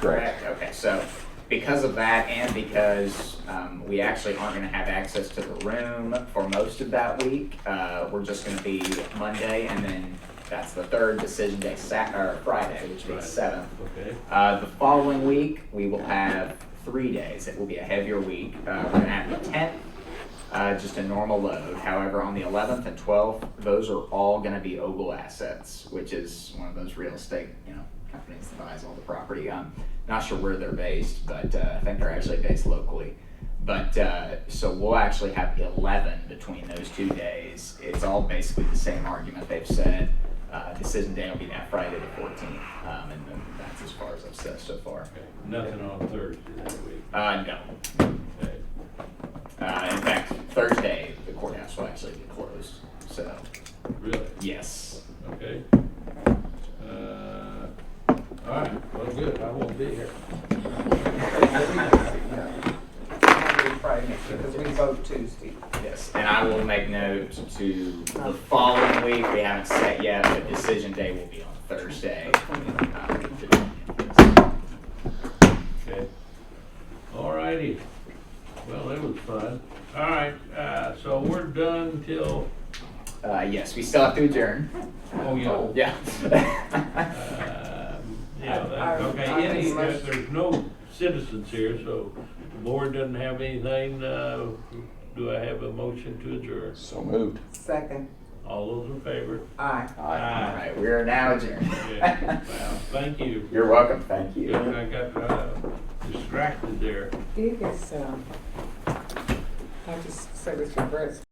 Correct. correct? Okay, so because of that and because um, we actually aren't going to have access to the room for most of that week, uh, we're just going to be Monday and then that's the third decision day, Sat, or Friday, which Right. means seventh. Okay. Uh, the following week, we will have three days. It will be a heavier week. Uh, we're going to have the 10th, uh, just a normal load. However, on the 11th and 12th, those are all going to be Ogle Assets, which is one of those real estate you know companies that buys all the property. Um, not sure where they're based, but uh, I think they're actually based locally. But uh, so we'll actually have 11 between those two days. It's all basically the same argument they've said. Uh, decision day will be that Friday the 14th, um, and then that's as far as I've said so far. Okay. Nothing on Thursday that week. Uh, no. Okay. Uh, in fact, Thursday, the courthouse will actually be closed. So, Really? yes. Okay. Uh, all right, well, good, I won't be here. Friday, because we vote Tuesday. Yes. And I will make note to the following week. We haven't set yet, but decision day will be on Thursday. Um, Okay. All righty. Well, that was fun. All right, uh, so we're done till, Uh, yes, we still have to adjourn. oh, yeah. Yeah. Um, Yeah, I- that- I- okay, I any, think most- there's no citizens here, so the board doesn't have anything, uh, do I have a motion to adjourn? So moved. Second, All those in favor? aye. All Aye. right, we are now Yeah, adjourned. wow, thank you. You're welcome. Thank you. Yeah, I got, uh, distracted there. It is, um, I just said it's reversed.